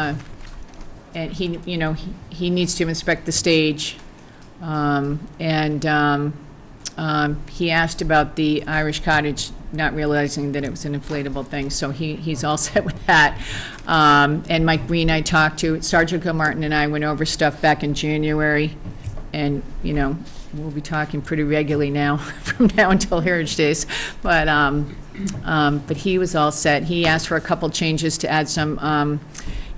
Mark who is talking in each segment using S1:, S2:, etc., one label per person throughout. S1: uh, and he, you know, he- he needs to inspect the stage. Um, And um, um, he asked about the Irish cottage, not realizing that it was an inflatable thing, so he, he's all set with that. Um, And Mike Breen I talked to, Sergeant Martin and I went over stuff back in January, and, you know, we'll be talking pretty regularly now, from now until Heritage Days. But, um, um, but he was all set. He asked for a couple changes to add some um,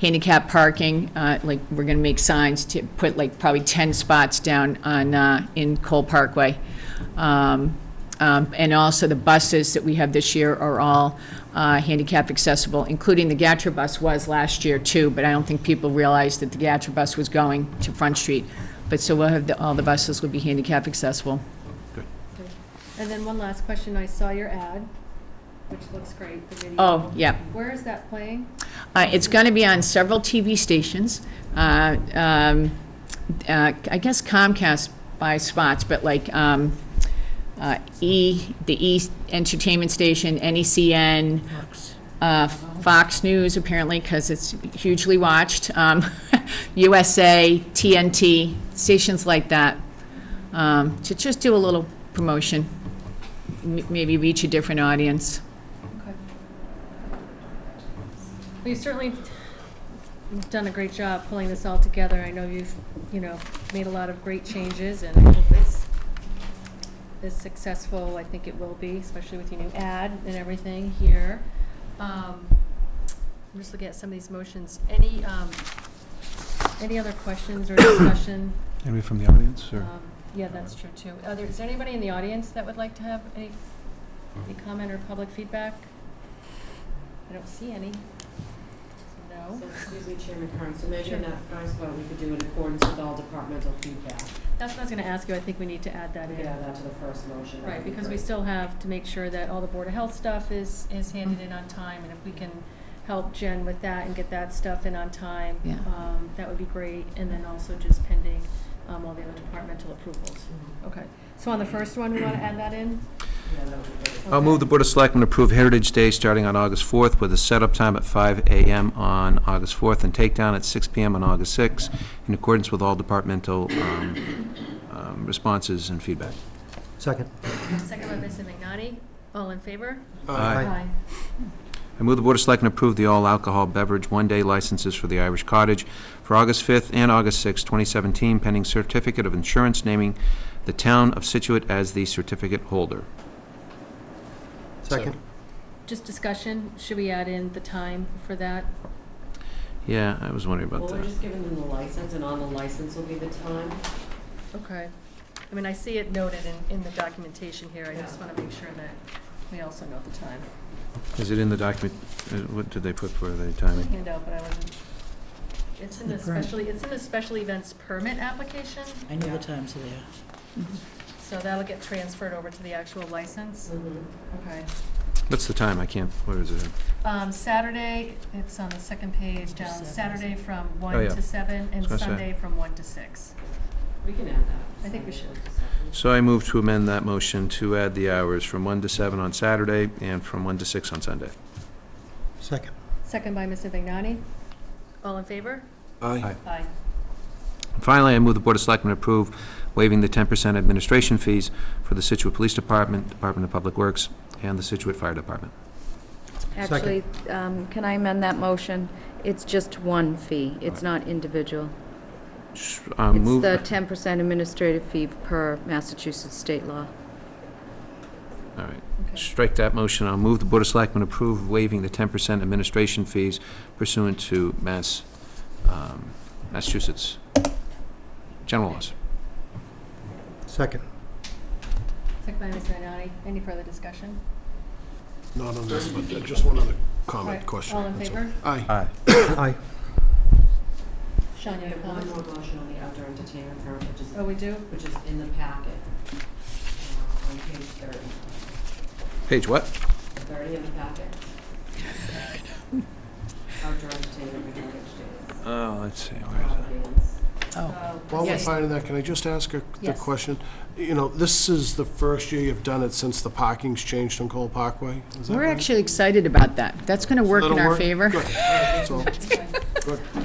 S1: handicap parking, uh, like, we're going to make signs to put like probably 10 spots down on, uh, in Cole Parkway. Um, um, And also the buses that we have this year are all uh, handicap accessible, including the Gatra bus was last year too, but I don't think people realized that the Gatra bus was going to Front Street. But so we'll have, the- all the buses will be handicap accessible.
S2: And then one last question, I saw your ad, which looks great, the video.
S1: Oh, yeah.
S2: Where is that playing?
S1: Uh, It's going to be on several TV stations. Uh, um, uh, I guess Comcast buys spots, but like um, uh, E, the E Entertainment Station, NECN, uh, Fox News apparently, because it's hugely watched, um, USA, TNT, stations like that, um, to just do a little promotion, m- maybe reach a different audience.
S2: Okay. Well, you certainly have done a great job pulling this all together. I know you've, you know, made a lot of great changes, and I hope it's as successful, I think it will be, especially with your new ad and everything here. Um, I'm just looking at some of these motions. Any, um, any other questions or discussion?
S3: Anybody from the audience, or?
S2: Um, Yeah, that's true, too. Are there, is there anybody in the audience that would like to have any, any comment or public feedback? I don't see any. So No?
S4: So, excuse me, Chairman Kern, so maybe
S2: Sure.
S4: in that first one, we could do in accordance with all departmental feedback.
S2: That's what I was gonna ask you. I think we need to add that
S4: Maybe
S2: in.
S4: add that to the first motion. that
S2: Right,
S4: would be
S2: because we
S4: great.
S2: still have to make sure that all the Board of Health stuff is, is handed in on time, and if we can help Jen with that and get that stuff in on time,
S1: Yeah.
S2: um, that would be great, and then also just pending, um, all the other departmental approvals. Okay, so on the first one, we wanna add that in?
S4: Yeah, that would be great.
S3: I'll move the Board of Selectmen approve Heritage Day starting on August 4th with a setup time at 5 a.m. on August 4th and takedown at 6 p.m. on August 6th, in accordance with all departmental um, um, responses and feedback.
S5: Second.
S2: Second by Mrs. McNally. All in favor?
S3: Aye. I move the Board of Selectmen approve the all-alcohol beverage one-day licenses for the Irish Cottage for August 5th and August 6th, 2017, pending certificate of insurance naming the town of Situate as the certificate holder.
S5: Second.
S2: Just discussion, should we add in the time for that?
S3: Yeah, I was wondering
S4: Well,
S3: about
S4: we're
S3: that.
S4: just giving them the license, and on the license will be the time.
S2: Okay. I mean, I see it noted in, in the documentation here. I just wanna make sure that we also note the time.
S3: Is it in the document, uh, what did they put for the timing?
S2: handout, but I wasn't. It's in the
S6: The permit.
S2: special, it's in the special events permit application,
S6: I know the times are there.
S2: so that'll get transferred over to the actual license. Okay.
S3: What's the time? I can't, where is it?
S2: Um, Saturday, it's on the second page down,
S6: Seven.
S2: Saturday from
S3: Oh,
S2: one
S3: yeah.
S2: to seven, and
S3: That's right.
S2: Sunday from one to six.
S4: We can add that.
S2: I think we should.
S3: So I move to amend that motion to add the hours from 1 to 7 on Saturday and from 1 to 6 on Sunday.
S5: Second.
S2: Second by Mr. Vignani. All in favor?
S3: Aye.
S2: Aye.
S3: And Finally, I move the Board of Selectmen approve waiving the 10% administration fees for the Situate Police Department, Department of Public Works, and the Situate Fire Department.
S7: Actually, um, can I amend that motion? It's just one fee. It's not individual.
S3: Sh- uh,
S7: It's
S3: move-
S7: the 10% administrative fee per Massachusetts state law.
S3: All right.
S2: Okay.
S3: Strike that motion. I'll move the Board of Selectmen approve waiving the 10% administration fees pursuant to Mass, um, Massachusetts general laws.
S5: Second.
S2: Second by Mr. Vignani. Any further discussion?
S8: Not on this, but just one other
S2: Right.
S8: comment, question.
S2: All in
S8: that's
S2: favor?
S8: all. Aye.
S3: Aye.
S5: Aye.
S2: Sean, you
S4: We
S2: have a
S4: have one
S2: comment?
S4: more motion on the outdoor entertainment permit, which is,
S2: Oh, we do?
S4: which is in the packet. uh, On page thirty.
S3: Page what?
S4: Thirty in the packet. Outdoor entertainment, we can days.
S3: Oh, let's see, where is
S4: Live bands.
S2: Oh,
S8: While we're
S2: yes.
S8: finding that, can I just ask a, the
S2: Yes.
S8: question? You know, this is the first year you've done it since the parking's changed on Cole Parkway? Is that
S1: We're
S8: right?
S1: actually excited about that. That's going to work in
S8: That'll
S1: our
S8: work?
S1: favor.
S8: Good. All right, that's all. Good.